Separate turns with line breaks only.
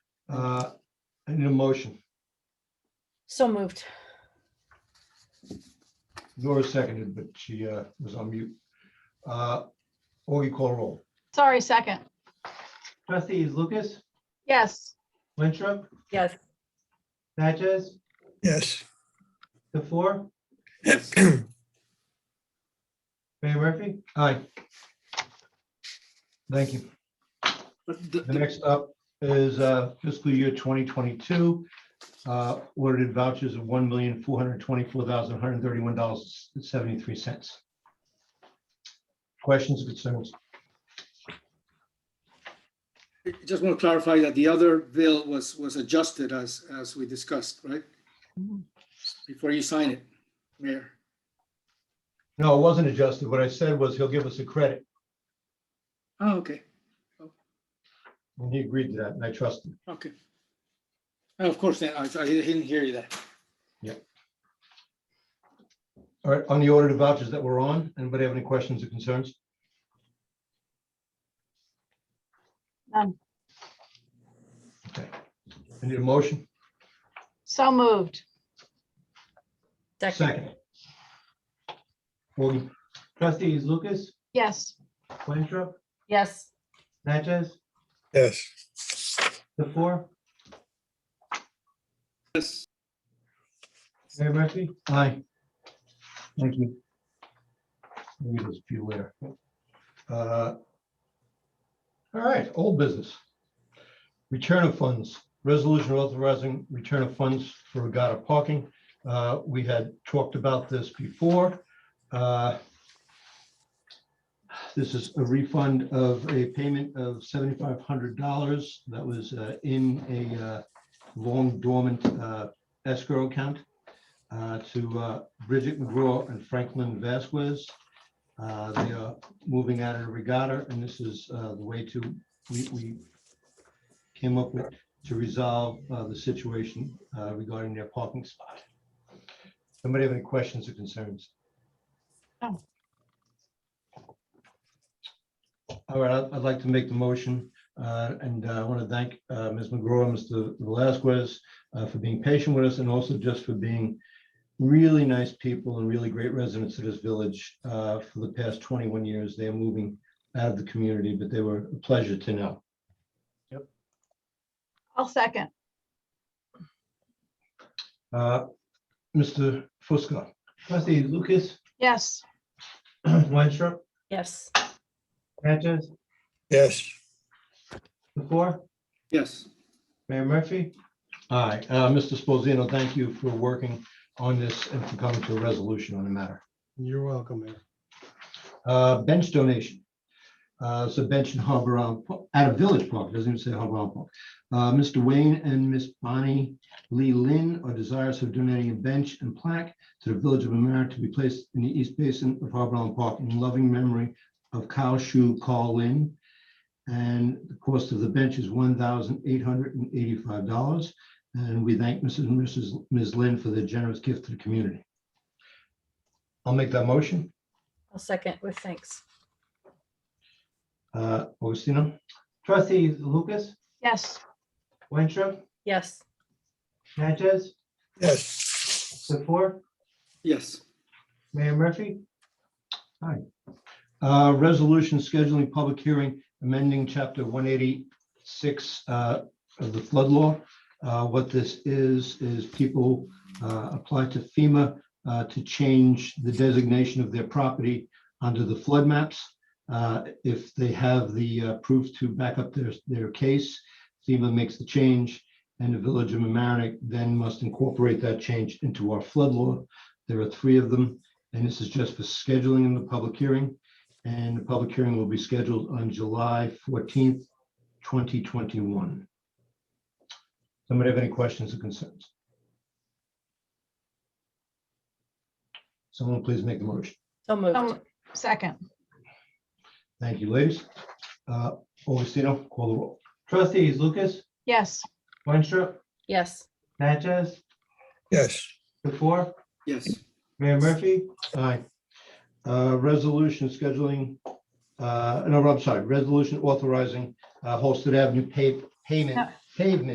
Uh, I need a motion.
So moved.
Nora seconded, but she uh, was on mute. Uh, Augie, call roll.
Sorry, second.
Trustees Lucas,
Yes.
Winthrop,
Yes.
Natchez,
Yes.
the four, Mayor Murphy.
Aye. Thank you. The next up is uh, fiscal year 2022. uh, Ordered vouchers of $1,424,131.73. Questions, concerns?
I Just want to clarify that the other bill was, was adjusted as, as we discussed, right? Before you sign it, Mayor.
No, it wasn't adjusted. What I said was he'll give us a credit,
Oh, okay,
and he agreed to that, and I trust him.
okay. And Of course, then, I, I didn't hear you that.
All right, on the ordered vouchers that we're on, anybody have any questions or concerns?
None.
Okay. I need a motion.
So moved.
Second. Augie,
Trustees Lucas,
Yes.
Winthrop,
Yes.
Natchez,
Yes.
the four,
Yes.
Mayor Murphy.
Aye. Thank you. Leave us beware. Uh, All right, old business. Return of funds, resolution authorizing return of funds for regatta parking. Uh, We had talked about this before. Uh, This is a refund of a payment of seventy-five hundred dollars that was uh, in a uh, long dormant uh, escrow account uh, to uh, Bridget McGraw and Franklin Vasquez. Uh, They are moving out of the regatta, and this is uh, the way to, we we came up with to resolve uh, the situation uh, regarding their parking spot. Somebody have any questions or concerns?
No.
All right, I'd- I'd like to make the motion, uh, and uh, I want to thank uh, Ms. McGraw, and Mr. Velazquez uh, for being patient with us, and also just for being really nice people and really great residents of this village uh, for the past 21 years. They are moving out of the community, but they were a pleasure to know.
I'll second.
Uh, Mr. Fusco,
Trustees Lucas,
Yes.
Winthrop,
Yes.
Natchez,
Yes.
the four,
Yes,
Mayor Murphy.
aye. Uh, Mr. Sposino, thank you for working on this and for coming to a resolution on the matter.
You're welcome, Mayor.
Uh, bench donation. Uh, so bench in Harbor Island, Po- at a village park, doesn't even say Harbor Island Park. Uh, Mr. Wayne and Miss Bonnie Lee Lynn are desirous of donating a bench and plaque to the Village of America to be placed in the East Basin of Harbor Island Park in loving memory of Kyle Shu Carl Lynn. And the cost of the bench is one thousand eight hundred and eighty-five dollars. And we thank Mrs. and Mrs. Ms. Lynn for their generous gift to the community. I'll make that motion.
I'll second with thanks.
Uh, Augustino?
Trustees Lucas,
Yes.
Winthrop,
Yes.
Natchez,
Yes.
the four,
yes,
Mayor Murphy.
Uh, Resolution scheduling public hearing amending chapter one eighty-six uh, of the flood law. Uh, What this is, is people uh, apply to FEMA uh, to change the designation of their property under the flood maps. Uh, If they have the uh, proof to back up their, their case, FEMA makes the change and the Village of mamaroneck then must incorporate that change into our flood law. There are three of them, and this is just for scheduling in the public hearing. And the public hearing will be scheduled on July fourteenth, twenty twenty-one. Somebody have any questions or concerns? Someone please make the motion.
So moved.
Um, Second.
Thank you, ladies. Uh, Augustino, call the roll.
Trustees Lucas,
Yes.
Winthrop,
Yes.
Natchez,
Yes.
the four,
yes,
Mayor Murphy.
Aye. Uh, Resolution scheduling, uh, no, I'm sorry, resolution authorizing uh, Holsted Avenue pave- payment,
No.
pavement